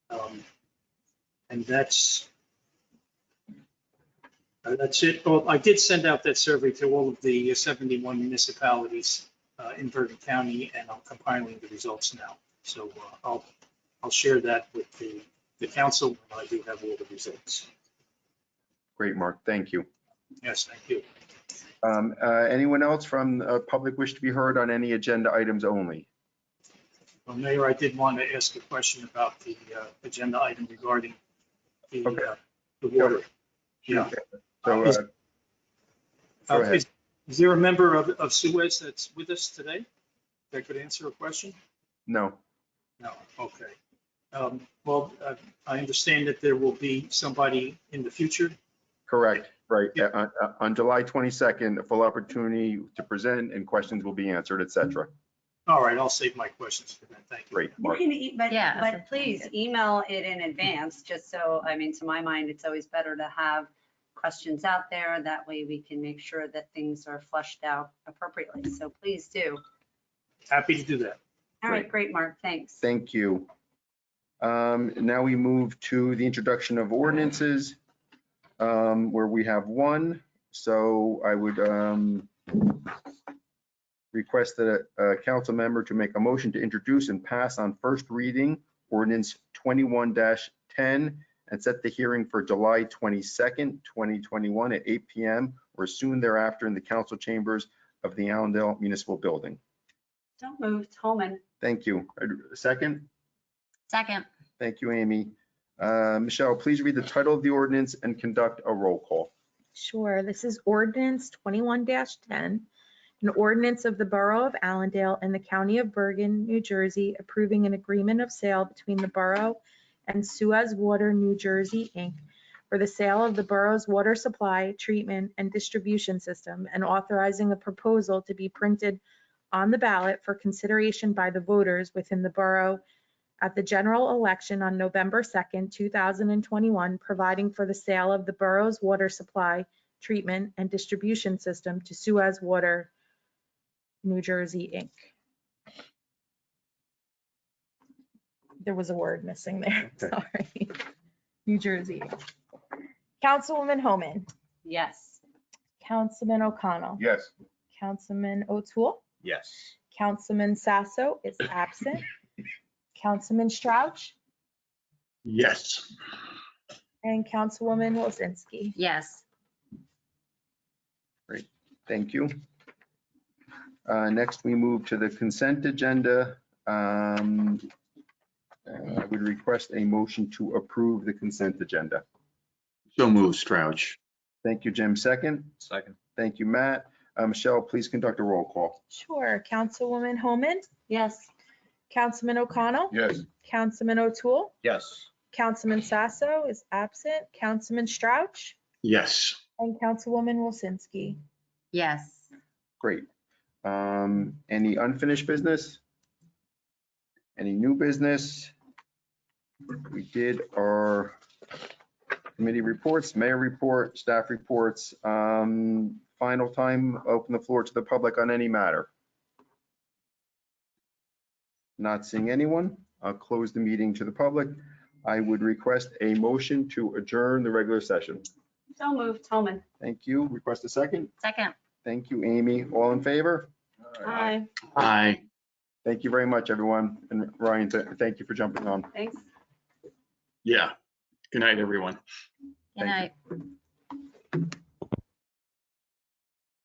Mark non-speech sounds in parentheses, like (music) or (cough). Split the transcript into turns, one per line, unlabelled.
Um, And that's, and that's it. Well, I did send out that survey to all of the 71 municipalities uh, in Bergen County, and I'm compiling the results now. So uh, I'll, I'll share that with the, the council when I do have all the results.
Great, Mark. Thank you.
Yes, thank you.
Um, uh, Anyone else from uh, public wish to be heard on any agenda items only?
Well, Mayor, I did want to ask a question about the uh, agenda item regarding the,
Okay.
uh, the water. Yeah.
So, uh,
Is-
go
Uh,
ahead.
Is is there a member of, of Suez that's with us today that could answer a question?
no,
No, okay. Um, Well, uh, I understand that there will be somebody in the future.
correct, right.
Yeah.
Uh, uh, On July 22nd, a full opportunity to present and questions will be answered, et cetera.
All right, I'll save my questions for then. Thank you.
Great,
You
Mark.
can, e- but,
Yeah,
but
that's
please
good.
email it in advance, just so, I mean, to my mind, it's always better to have questions out there. That way we can make sure that things are flushed out appropriately. So please do.
Happy to do that.
All right, great, Mark, thanks.
Thank you. Um, Now we move to the introduction of ordinances, um, where we have one. So I would um, request that a a council member to make a motion to introduce and pass on first reading ordinance 21-10 and set the hearing for July 22nd, 2021 at 8 PM or soon thereafter in the council chambers of the Allendale Municipal Building.
Don't move, Tolman.
Thank you. A Second?
Second,
Thank you, Amy. Uh, Michelle, please read the title of the ordinance and conduct a roll call.
Sure, this is ordinance twenty-one ten. An ordinance of the Borough of Allendale and the County of Bergen, New Jersey, approving an agreement of sale between the Borough and Suez Water, New Jersey, Inc. for the sale of the borough's water supply, treatment, and distribution system, and authorizing a proposal to be printed on the ballot for consideration by the voters within the borough at the general election on November 2nd, 2021, providing for the sale of the borough's water supply, treatment, and distribution system to Suez Water, New Jersey, Inc. There was a word missing there, (laughs)
Okay.
sorry. New Jersey. Councilwoman Homan,
Yes.
Councilman O'Connell,
Yes.
Councilman O'Toole,
Yes.
Councilman Sasso is absent.
(coughs)
Councilman Strouch?
Yes.
And Councilwoman Wozinski.
yes,
Thank you. Uh, Next, we move to the consent agenda. Um, uh, I would request a motion to approve the consent agenda.
So move, Strouch.
Thank you, Jim. Second.
Second.
Thank you, Matt. Uh, Michelle, please conduct a roll call.
Sure. Councilwoman Homan,
Yes.
Councilman O'Connell,
Yes.
Councilman O'Toole,
Yes.
Councilman Sasso is absent, Councilman Strouch,
Yes.
and Councilwoman Wozinski.
yes.
Great. Um, Any unfinished business? Any new business? We did our committee reports, mayor report, staff reports. Um, Final time, open the floor to the public on any matter. Not seeing anyone. I'll close the meeting to the public. I would request a motion to adjourn the regular session.
Don't move, Tolman.
Thank you. Request a second.
Second,
Thank you, Amy. All in favor?
Hi.
Aye.
Thank you very much, everyone. And Ryan, th- thank you for jumping on.
Thanks.
Yeah. Good night, everyone.
good
Thank you.
night.